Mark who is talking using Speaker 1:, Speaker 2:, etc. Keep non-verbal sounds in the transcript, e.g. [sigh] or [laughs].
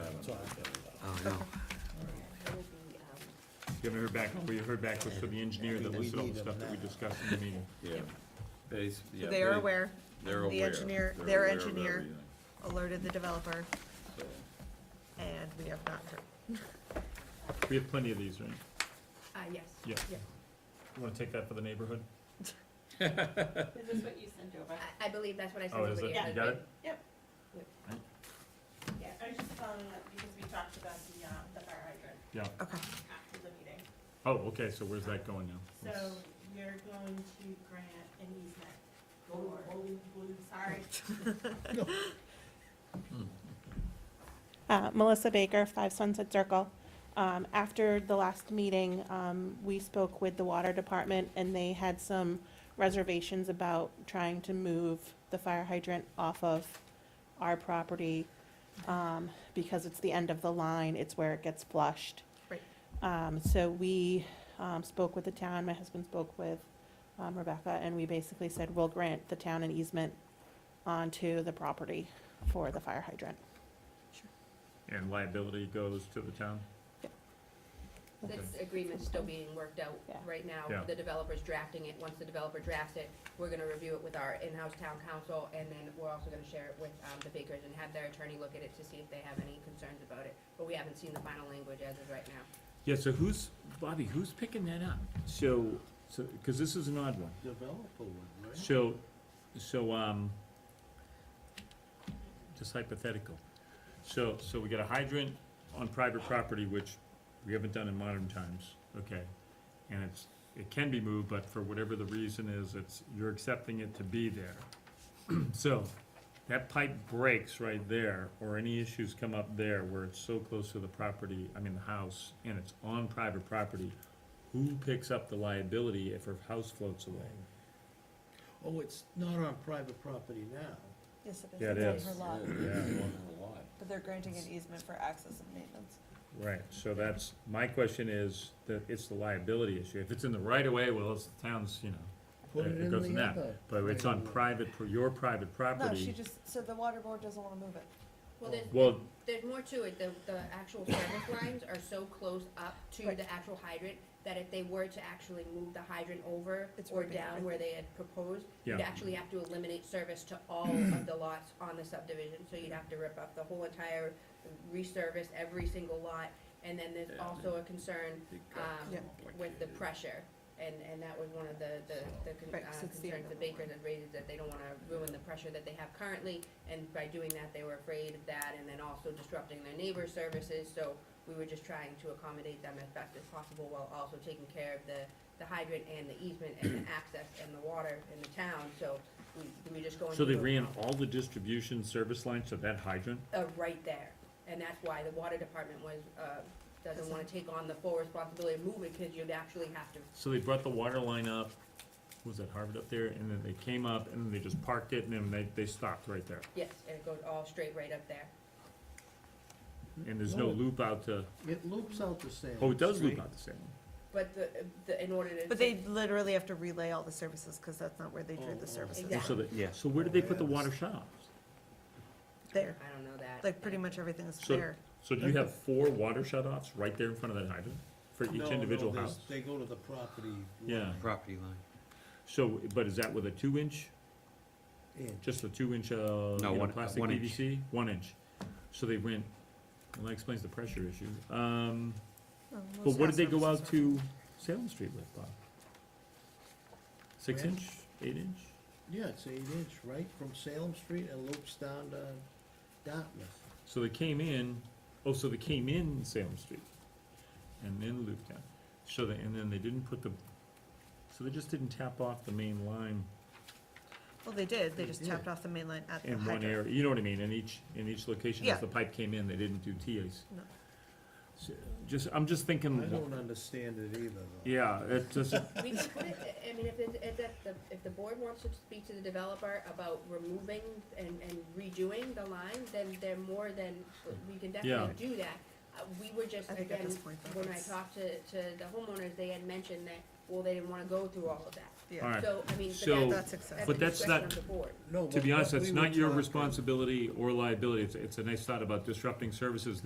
Speaker 1: um,
Speaker 2: You haven't heard back, we heard back from the engineer that listed all the stuff that we discussed in the meeting.
Speaker 3: Yeah. Bas- yeah,
Speaker 4: They are
Speaker 3: they-
Speaker 4: aware.
Speaker 3: They're aware.
Speaker 4: The engineer,
Speaker 3: They're
Speaker 4: their
Speaker 3: aware of
Speaker 4: engineer
Speaker 3: everything,
Speaker 4: alerted the developer,
Speaker 3: so.
Speaker 4: and we have not heard.
Speaker 2: We have plenty of these, right?
Speaker 1: Uh, yes.
Speaker 2: Yeah. You wanna take that for the neighborhood?
Speaker 5: Is this what you sent over?
Speaker 1: I, I believe that's what I said.
Speaker 2: Oh, is
Speaker 1: over
Speaker 2: it?
Speaker 1: the-
Speaker 2: You got it?
Speaker 5: Yeah, I was just following up because we talked about the, um, the fire hydrant
Speaker 2: Yeah.
Speaker 4: Okay,
Speaker 5: after the meeting.
Speaker 2: Oh, okay, so where's that going now?
Speaker 5: So you're going to grant an easement for, sorry, [laughs]
Speaker 6: Uh, Melissa Baker, Five Sunset Circle. Um, after the last meeting, um, we spoke with the water department and they had some reservations about trying to move the fire hydrant off of our property, um, because it's the end of the line, it's where it gets flushed.
Speaker 4: Right.
Speaker 6: Um, so we, um, spoke with the town, my husband spoke with, um, Rebecca, and we basically said, we'll grant the town an easement onto the property for the fire hydrant.
Speaker 2: And liability goes to the town?
Speaker 1: This agreement's still being worked out
Speaker 6: Yeah.
Speaker 1: right
Speaker 2: Yeah.
Speaker 1: now. The developer's drafting it. Once the developer drafts it, we're gonna review it with our in-house town council, and then we're also gonna share it with, um, the Bakers and have their attorney look at it to see if they have any concerns about it. But we haven't seen the final language as of right now.
Speaker 2: Yeah, so who's, Bobby, who's picking that up? So, so, cause this is an odd one.
Speaker 7: developer would, right?
Speaker 2: So, so, um, just hypothetical. So, so we got a hydrant on private property, which we haven't done in modern times, okay? And it's, it can be moved, but for whatever the reason is, it's, you're accepting it to be there. [clears throat] So, that pipe breaks right there, or any issues come up there where it's so close to the property, I mean, the house, and it's on private property, who picks up the liability if her house floats away?
Speaker 7: Oh, it's not on private property now.
Speaker 8: Yes, it is.
Speaker 2: Yeah, it
Speaker 8: It's
Speaker 2: is.
Speaker 8: on her lot,
Speaker 3: Yeah, it's on the lot.
Speaker 8: But they're granting an easement for access and maintenance.
Speaker 2: Right, so that's, my question is, that it's the liability issue, if it's in the right of way, well, it's the town's, you know,
Speaker 7: Put
Speaker 2: it
Speaker 7: it
Speaker 2: goes
Speaker 7: in
Speaker 2: in
Speaker 7: the
Speaker 2: that,
Speaker 7: other.
Speaker 2: but it's on private, pro- your private
Speaker 8: No, she
Speaker 2: property.
Speaker 8: just, so the water board doesn't wanna move it.
Speaker 1: Well, there's,
Speaker 2: Well,
Speaker 1: there's more to it, the, the actual service lines are so close up to
Speaker 8: Right.
Speaker 1: the actual hydrant that if they were to actually move the hydrant over
Speaker 8: It's
Speaker 1: or
Speaker 8: right there,
Speaker 1: down
Speaker 8: right
Speaker 1: where they had proposed,
Speaker 2: Yeah.
Speaker 1: you'd actually have to eliminate service to all
Speaker 8: [clears throat]
Speaker 1: of the lots on the subdivision, so you'd have to rip up the whole entire, resurface every single lot, and then there's
Speaker 3: Yeah.
Speaker 1: also a concern
Speaker 3: Big cut.
Speaker 1: um,
Speaker 8: Yeah.
Speaker 1: with the pressure, and, and that was one of the, the, the con-
Speaker 8: Right, 'cause
Speaker 1: uh,
Speaker 8: it's the
Speaker 1: concerns
Speaker 8: end
Speaker 1: the
Speaker 8: of the
Speaker 1: bakers had raised, is that they don't wanna ruin the pressure that they have currently, and by doing that, they were afraid of that, and then also disrupting their neighbor's services, so we were just trying to accommodate them as best as possible, while also taking care of the, the hydrant and the easement and
Speaker 8: [clears throat]
Speaker 1: the access and the water in the town, so we, we were just going.
Speaker 2: so they
Speaker 1: through-
Speaker 2: ran all the distribution service lines to that hydrant?
Speaker 1: uh, right there. And that's why the water department was, uh, doesn't wanna take on the full responsibility of moving, cause you'd actually have to,
Speaker 2: So they brought the water line up, was that Harvard up there, and then they came up, and then they just parked it, and then they, they stopped right there.
Speaker 1: yes, and it goes all straight right up there.
Speaker 2: And there's no
Speaker 7: No.
Speaker 2: loop out to,
Speaker 7: It loops out the same.
Speaker 2: oh, it does loop out to Salem.
Speaker 1: But the, the, in order to.
Speaker 8: But they literally have to relay all the services, cause that's not where they drew
Speaker 7: Oh, oh.
Speaker 8: the services.
Speaker 2: And So
Speaker 1: Exactly.
Speaker 2: they, so where did they put the water showers?
Speaker 8: There,
Speaker 1: I don't know that.
Speaker 8: like pretty much everything is
Speaker 2: So-
Speaker 8: there.
Speaker 2: So do you have four water shut-offs right there in front of that hydrant, for
Speaker 7: No,
Speaker 2: each
Speaker 7: no,
Speaker 2: individual
Speaker 7: there's-
Speaker 2: house?
Speaker 7: They go to the property.
Speaker 2: Yeah.
Speaker 3: Property line.
Speaker 2: So, but is that with a two inch,
Speaker 7: Yeah.
Speaker 2: just a two inch, uh, you know,
Speaker 3: one-
Speaker 2: plastic
Speaker 3: one inch.
Speaker 2: PVC? One inch. So they went, well, that explains the pressure issue. Um,
Speaker 8: Oh,
Speaker 2: but
Speaker 8: most
Speaker 2: what did they
Speaker 8: house
Speaker 2: go out
Speaker 8: services are-
Speaker 2: to Salem Street with, Bob? Six
Speaker 7: Where?
Speaker 2: inch, eight inch?
Speaker 7: Yeah, it's eight inch, right, from Salem Street and loops down to Dartmouth.
Speaker 2: So they came in, oh, so they came in Salem Street and then looped down. So they, and then they didn't put the, so they just didn't tap off the main line
Speaker 8: Well, they did, they
Speaker 7: They
Speaker 8: just
Speaker 7: did.
Speaker 8: tapped off the main line at the
Speaker 2: in one
Speaker 8: hydrant.
Speaker 2: area, you know what I mean, in each, in each location,
Speaker 8: Yeah.
Speaker 2: as the pipe came in, they didn't do TAs.
Speaker 8: No.
Speaker 2: So, Just, I'm just
Speaker 7: I
Speaker 2: thinking,
Speaker 7: don't understand it either, though.
Speaker 2: Hmm. yeah, it just,
Speaker 1: We can put it, I mean, if it, if that, the- if the board wants to speak to the developer about removing and, and redoing the line, then they're more than, we can definitely do that. Uh, we were just,
Speaker 8: I think at
Speaker 1: again,
Speaker 8: this point, though,
Speaker 1: when I
Speaker 8: it's-
Speaker 1: talked to, to the homeowners, they had mentioned that, well, they didn't wanna go through all of that.
Speaker 8: Yeah.
Speaker 2: all right.
Speaker 1: So, I mean,
Speaker 2: So-
Speaker 1: but that's,
Speaker 8: That's
Speaker 1: that's
Speaker 8: excessive.
Speaker 1: the
Speaker 2: But that's
Speaker 1: discretion
Speaker 2: not-
Speaker 1: of the board.
Speaker 7: No,
Speaker 2: To
Speaker 7: but
Speaker 2: be honest,
Speaker 7: what
Speaker 2: that's
Speaker 7: we
Speaker 2: not
Speaker 7: were
Speaker 2: your
Speaker 7: talking-
Speaker 2: responsibility or liability, it's, it's a nice thought about disrupting services